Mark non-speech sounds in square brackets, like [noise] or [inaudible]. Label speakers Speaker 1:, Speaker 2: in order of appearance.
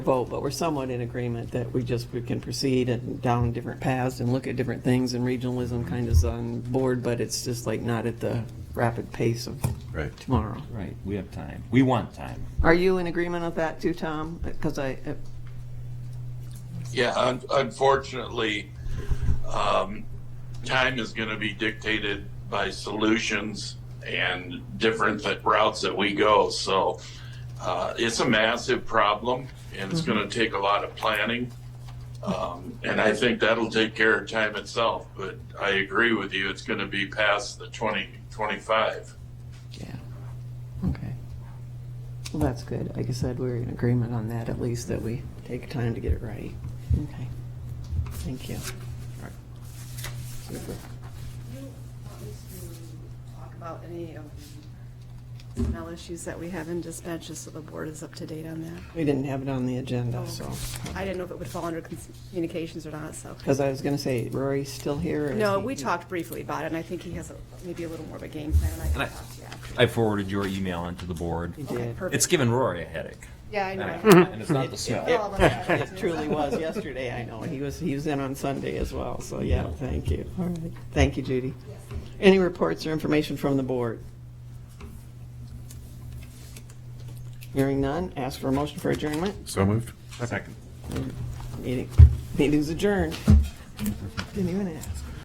Speaker 1: vote, but we're somewhat in agreement that we just, we can proceed and down different paths and look at different things, and regionalism kind of is on board, but it's just like not at the rapid pace of
Speaker 2: Right.
Speaker 1: tomorrow.
Speaker 3: Right, we have time. We want time.
Speaker 1: Are you in agreement with that too, Tom? Because I, uh,
Speaker 4: Yeah, un- unfortunately, um, time is going to be dictated by solutions and different th- routes that we go. So uh, it's a massive problem, and it's going to take a lot of planning. Um, and I think that'll take care of time itself. But I agree with you; it's going to be past the twenty twenty-five.
Speaker 1: yeah, okay. Well, that's good. Like I said, we're in agreement on that, at least that we take time to get it right. Okay, thank you.
Speaker 5: you want me to talk about any of the personnel issues that we have in dispatch, just so the board is up to date on that?
Speaker 1: We didn't have it on the agenda, so,
Speaker 5: I didn't know if it would fall under cons- communications or not, so.
Speaker 1: because I was going to say, Rory's still here? or is
Speaker 5: No,
Speaker 1: he-
Speaker 5: we talked briefly about it, and I think he has a- maybe a little more of a game plan, and I
Speaker 3: And I-
Speaker 5: can talk to you after.
Speaker 3: I forwarded your email onto the board.
Speaker 1: He
Speaker 5: Okay,
Speaker 1: did.
Speaker 5: perfect.
Speaker 3: It's given Rory a headache.
Speaker 5: Yeah, I
Speaker 3: And
Speaker 5: know.
Speaker 3: it's not the
Speaker 5: We're
Speaker 3: smell.
Speaker 5: all about
Speaker 1: [laughs]
Speaker 5: that,
Speaker 1: It
Speaker 5: too.
Speaker 1: truly was yesterday, I know. He was, he was in on Sunday as well, so yeah, thank you. All right. Thank you, Judy. Any reports or information from the board? Hearing none, ask for a motion for adjournment.
Speaker 2: So moved.
Speaker 3: Second.
Speaker 1: Meeting, meeting's adjourned. Didn't even ask.